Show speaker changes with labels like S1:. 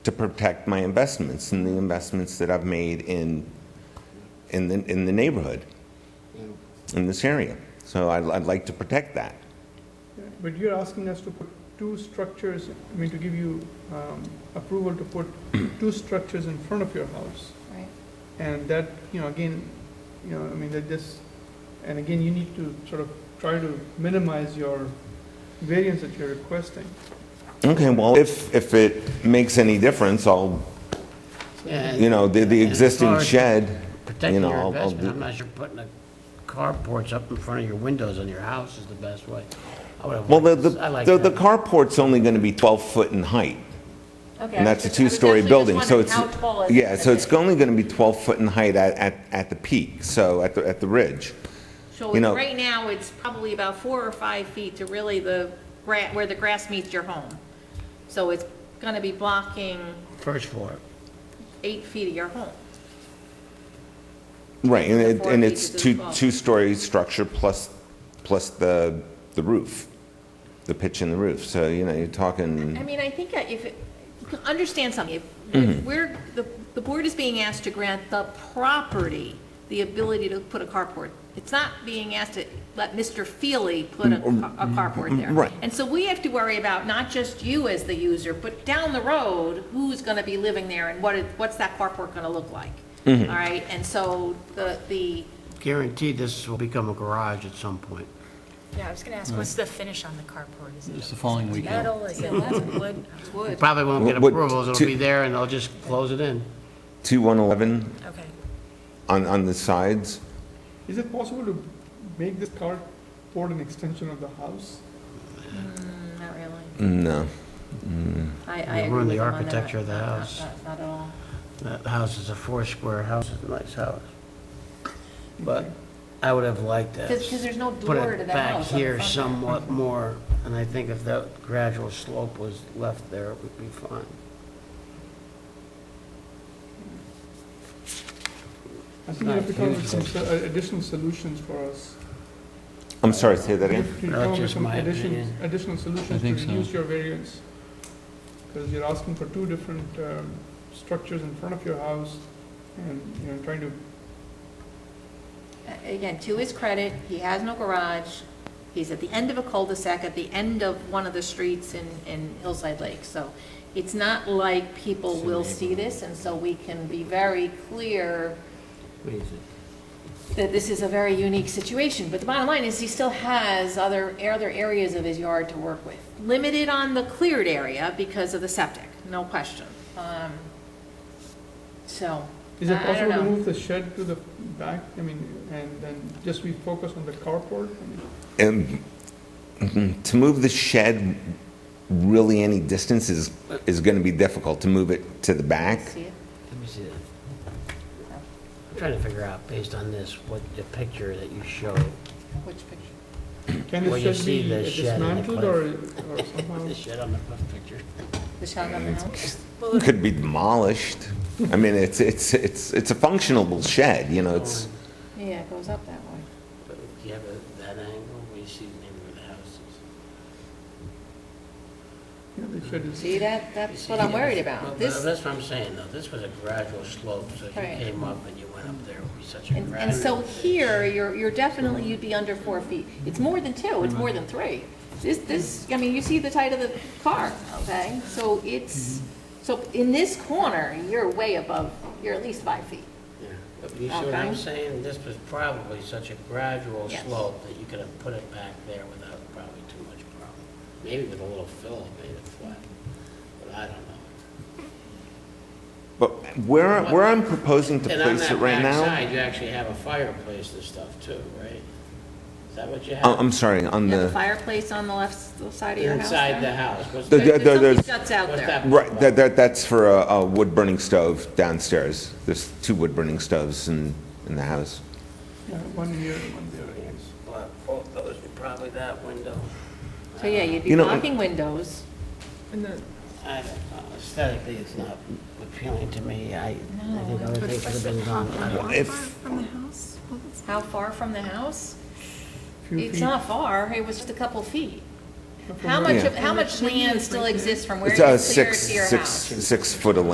S1: to protect my investments and the investments that I've made in, in the, in the neighborhood, in this area. So I'd, I'd like to protect that.
S2: But you're asking us to put two structures, I mean, to give you um, approval to put two structures in front of your house.
S3: Right.
S2: And that, you know, again, you know, I mean, that this, and again, you need to sort of try to minimize your variance that you're requesting.
S1: Okay, well, if, if it makes any difference, I'll, you know, the, the existing shed, you
S4: Protecting
S1: know,
S4: your
S1: I'll- I'll
S4: investment, I'm
S1: do.
S4: not sure putting the carports up in front of your windows on your house is the best way. I would've
S1: Well, the,
S4: liked
S1: the,
S4: this- I like
S1: the- the
S4: that.
S1: carport's only gonna be twelve foot in height.
S3: Okay.
S1: And
S3: I
S1: that's a
S3: was just- I was
S1: two-story
S3: actually just
S1: building, so
S3: wondering
S1: it's.
S3: How tall is it?
S1: Yeah, so
S3: Okay.
S1: it's only gonna be twelve foot in height at, at, at the peak, so at the, at the ridge.
S3: So
S1: you know-
S3: right now, it's probably about four or five feet to really the, gra- where the grass meets your home. So it's going to be blocking
S4: First floor.
S3: eight feet of your home.
S1: Right, and
S3: The
S1: it,
S3: four
S1: and
S3: feet
S1: it's
S3: is as
S1: two,
S3: well.
S1: two-story structure plus, plus the, the roof, the pitch and the roof, so, you know, you're
S3: I
S1: talking,
S3: mean, I think if, it- understand something, if- if we're, the, the board is being asked to grant the property the ability to put a carport. It's not being asked to let Mr. Feely put a ca- a carport there.
S1: Right.
S3: And so we have to worry about not just you as the user, but down the road, who's going to be living there and what, it- what's that carport going to look like? All right, and so the, the,
S4: Guaranteed this will become a garage at some point.
S5: Yeah, I was gonna ask, what's the finish on the carport? Is
S6: It's
S5: it
S6: the following weekend.
S5: metal, is it wood?
S3: wood.
S4: Probably won't get
S1: Would-
S4: approvals, it'll
S1: to-
S4: be there and they'll just close it in.
S1: two one eleven
S5: Okay.
S1: on, on the sides.
S2: Is it possible to make this carport an extension of the house?
S5: Mm,
S3: Not really.
S1: No,
S3: I, I
S4: You
S3: agree
S4: ruin
S3: with
S4: the
S3: him on that.
S4: architecture of the
S3: Not- not-
S4: house.
S3: not- Not at all.
S4: That house is a four-square house, it's a nice house. But I would have liked that.
S3: Because there's no
S4: put
S3: door to
S4: it
S3: the house.
S4: back
S3: on the
S4: here
S3: front.
S4: somewhat more, and I think if that gradual slope was left there, it would be fine.
S2: I think you have to come up with some so- uh, additional solutions for us.
S1: I'm sorry, say that
S2: You
S1: again?
S2: have to come up with
S4: just
S2: some
S4: my
S2: additions,
S4: opinion.
S2: additional solutions to
S6: think so.
S2: reduce your variance. Because you're asking for two different um, structures in front of your house and, you know, trying to,
S3: A- Again, to his credit, he has no garage. He's at the end of a cul-de-sac, at the end of one of the streets in, in Hillside Lake. So it's not like people will see this, and so we can be very clear
S4: What do you think?
S3: that this is a very unique situation. But the bottom line is, he still has other, other areas of his yard to work with. Limited on the cleared area because of the septic, no question. Um, So,
S2: is it
S3: I- I don't
S2: possible to
S3: know.
S2: move the shed to the back? I mean, and then just we focus on the carport? I mean,
S1: And mhm, to move the shed really any distance is, is gonna be difficult, to move it to the back.
S3: See it?
S4: Let me see that. I'm trying to figure out, based on this, what the picture that you show,
S3: Which picture?
S2: Can
S4: Well, you
S2: the shed
S4: see
S2: be
S4: the shed in the
S2: dismantled or or somehow?
S4: the shed on the front picture.
S3: The shotgun on the house?
S1: Could be demolished. I mean, it's, it's, it's, it's a functional shed, you know, it's,
S3: Yeah, it goes up that way.
S4: But if you have a- that angle, where you see the neighborhood of the houses.
S2: Yeah, the shed is-
S3: See, that, that's what I'm worried about.
S4: Well,
S3: This,
S4: That's what I'm saying, though, this was a gradual slope, so if you
S3: Right.
S4: came up and you went up there, it would be such a
S3: and,
S4: gradual.
S3: and so here, you're, you're definitely, you'd be under four feet. It's more than two, it's more than three. This, this, I mean, you see the height of the car, okay? So it's, so in this corner, you're way above, you're at least five feet.
S4: Yeah, but You see what I'm
S3: Okay.
S4: saying? This was probably such a gradual
S3: Yes.
S4: slope that you could have put it back there without probably too much problem. Maybe with a little fill, it made it flat, but I don't know.
S1: But where, where I'm proposing to
S4: And on
S1: place it
S4: that
S1: right now?
S4: backside, you actually have a fireplace and stuff too, right? Is that what you
S1: Oh,
S4: have?
S1: I'm sorry, on
S3: You have a
S1: the,
S3: fireplace on the left s- side of your house
S4: Inside the
S3: there?
S4: house, what's
S1: The-
S4: that?
S1: the-
S3: There's something
S1: there's-
S3: shuts out
S4: what's
S3: there.
S4: that
S1: right, that,
S4: about?
S1: that, that's for a, a wood burning stove downstairs. There's two wood burning stoves in, in the house.
S2: Yeah, One here, and one there, I guess.
S4: But both those, probably that window.
S3: So, yeah, you'd be
S1: You know,
S3: blocking windows.
S2: And then,
S4: I don't know, aesthetically, it's not appealing to me. I, I think other things would have been done. I
S3: Uh-huh.
S4: don't-
S1: If,
S3: How far from the house?
S2: few
S3: It's
S2: feet.
S3: not far, it was just a couple feet. How much,
S1: Yeah.
S3: of- how much land still exists from where you
S1: It's uh
S3: cleared
S1: six,
S3: to your
S1: six,
S3: house?
S1: six foot of